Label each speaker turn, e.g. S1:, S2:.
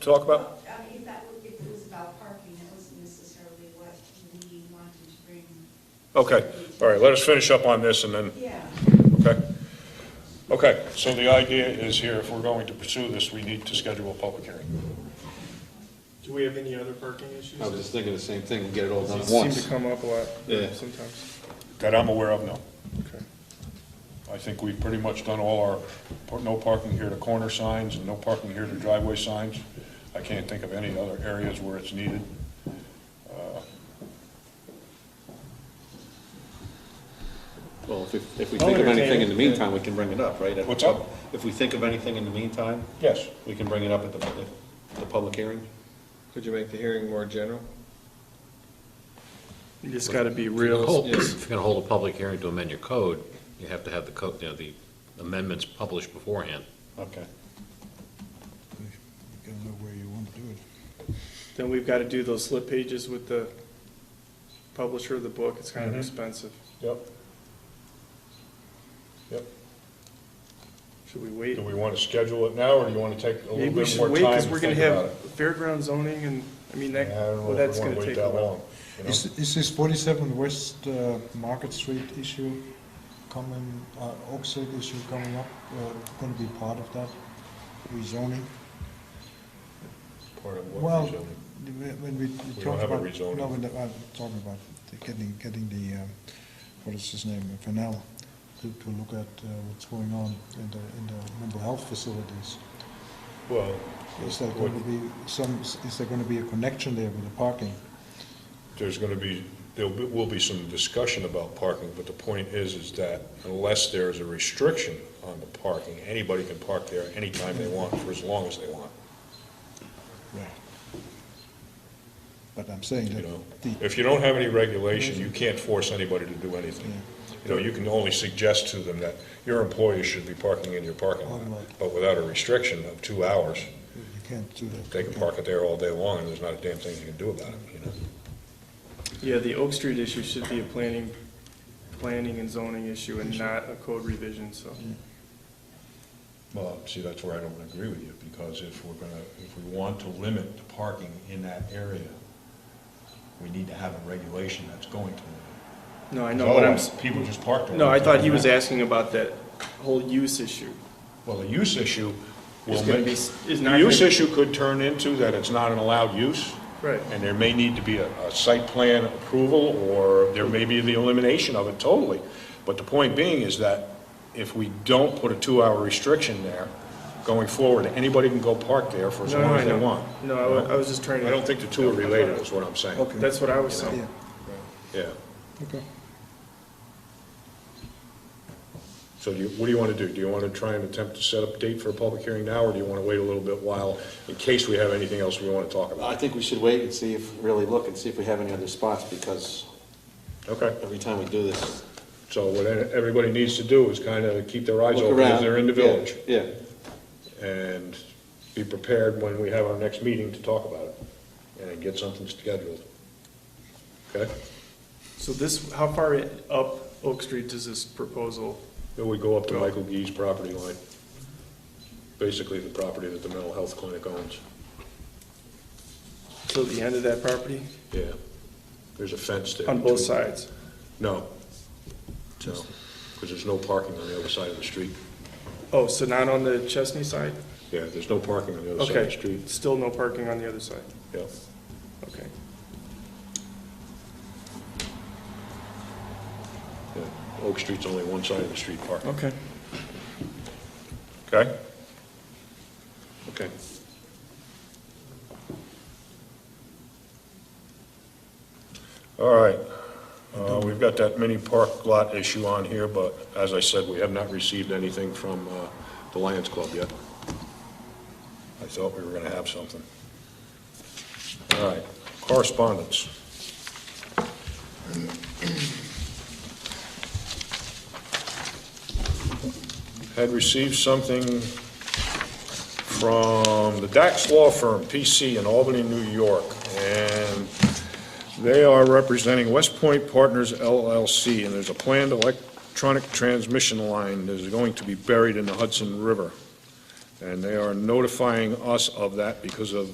S1: talk about?
S2: I mean, if that, were- if it was about parking, that wasn't necessarily what we wanted to bring.
S1: Okay, all right, let us finish up on this and then,
S2: Yeah,
S1: okay? Okay, so the idea is here, if we're going to pursue this, we need to schedule a public hearing.
S3: Do we have any other parking issues?
S4: I was just thinking the same thing, get it all done
S3: They
S4: at
S3: seem to
S4: once.
S3: come up a lot
S4: Yeah.
S3: sometimes.
S1: That I'm aware of, no.
S3: Okay.
S1: I think we've pretty much done all our, par- no parking here to corner signs and no parking here to driveway signs. I can't think of any other areas where it's needed.
S4: Well, if, we- if we
S3: I'll
S4: think of
S3: entertain
S4: anything
S3: it,
S4: in the meantime, we can bring it up, right?
S1: What's up?
S4: If we think of anything in the meantime,
S1: Yes.
S4: we can bring it up at the, at the public hearing?
S5: Could you make the hearing more general?
S3: You just gotta be
S6: If you're gonna
S3: real.
S6: hold-
S5: yes.
S6: If you're gonna hold a public hearing to amend your code, you have to have the code, you know, the amendments published beforehand.
S4: Okay.
S7: You gotta know where you want to do it.
S3: Then we've gotta do those slip pages with the publisher of the book. It's kind of expensive.
S1: Yep. Yep.
S3: Should we wait?
S1: Do we want to schedule it now, or do you want to take a little
S3: Maybe we
S1: bit
S3: should
S1: more
S3: wait,
S1: time
S3: because
S1: to
S3: we're gonna
S1: think about
S3: have
S1: it?
S3: fairground zoning and, I mean,
S1: I
S3: that,
S1: don't know
S3: well,
S1: if we
S3: that's
S1: want
S3: gonna
S1: to wait
S3: take a
S1: that
S3: while.
S1: long. you know?
S7: Is, is this forty-seven West uh, Market Street issue coming, uh, Oak Street issue coming up, uh, gonna be part of that rezoning?
S1: Part of what
S7: Well,
S1: rezoning.
S7: the- when when we
S1: don't
S7: talked
S1: have a
S7: about,
S1: rezoning.
S7: no, when the- I'm talking about the getting, getting the, um, what is his name, Fennell, to, to look at uh, what's going on in the, in the mental health facilities.
S1: Well,
S7: Is there
S1: what-
S7: gonna be some, is there gonna be a connection there with the parking?
S1: there's going to be, there will be some discussion about parking, but the point is, is that unless there's a restriction on the parking, anybody can park there anytime they want, for as long as they want,
S7: Right. But I'm saying
S1: you
S7: that
S1: know?
S7: the,
S1: If you don't have any regulation, you can't force anybody to do anything. You know, you can only suggest to them that your employees should be parking in your parking lot, but without a restriction of two hours,
S7: you can't do that.
S1: they can park it there all day long, and there's not a damn thing you can do about it, you know?
S3: Yeah, the Oak Street issue should be a planning, planning and zoning issue and not a code revision, so.
S1: Mm. Well, see, that's where I don't agree with you, because if we're gonna, if we want to limit the parking in that area, we need to have a regulation that's going to limit.
S3: No, I know, but I'm,
S1: Otherwise,
S3: s-
S1: People just park there.
S3: no, I thought he was asking about that whole use issue.
S1: Well, the use issue will
S3: It's gonna
S1: make,
S3: be, s- is
S1: the
S3: not.
S1: use
S3: gonna-
S1: issue could turn into that it's not an allowed use,
S3: Right.
S1: and there may need to be a, a site plan approval, or there may be the elimination of it totally. But the point being is that if we don't put a two-hour restriction there, going forward, anybody can go park there for as
S3: No, no,
S1: long
S3: I
S1: as they
S3: know.
S1: want.
S3: No, I wa- I was just trying to.
S1: I don't think the two are related, is what I'm saying.
S7: Okay.
S3: That's what I was saying.
S7: Yeah,
S1: Yeah.
S7: okay.
S1: So do you, what do you want to do? Do you want to try and attempt to set up a date for a public hearing now, or do you want to wait a little bit while, in case we have anything else we want to talk
S4: I
S1: about?
S4: think we should wait and see if, really look and see if we have any other spots, because
S1: Okay.
S4: every time we do this.
S1: So what e-, everybody needs to do is kind of keep their eyes
S4: look
S1: open as
S4: around.
S1: they're in the
S4: Yeah,
S1: village,
S4: Yeah,
S1: and be prepared when we have our next meeting to talk about it, and get something scheduled. Okay?
S3: So this, how far i- up Oak Street does this proposal?
S1: Then we go up to Michael Gee's property line, basically the property that the mental health clinic owns.
S3: Till the end of that property?
S1: Yeah, there's a fence there.
S3: On both
S1: between-
S3: sides?
S1: No, no, because there's no parking on the other side of the street.
S3: Oh, so not on the Chesney side?
S1: Yeah, there's no parking on the other side of the
S3: Okay,
S1: street.
S3: still no parking on the other side,
S1: Yeah,
S3: okay.
S1: yeah. Oak Street's only one side of the street parking.
S3: Okay.
S1: Okay? Okay. All right. Uh, We've got that mini park lot issue on here, but as I said, we have not received anything from uh, the Lions Club yet. I thought we were going to have something. All right, correspondence. Had received something from the Dax Law Firm, PC in Albany, New York, and they are representing West Point Partners LLC, and there's a planned electronic transmission line that is going to be buried in the Hudson River. And they are notifying us of that because of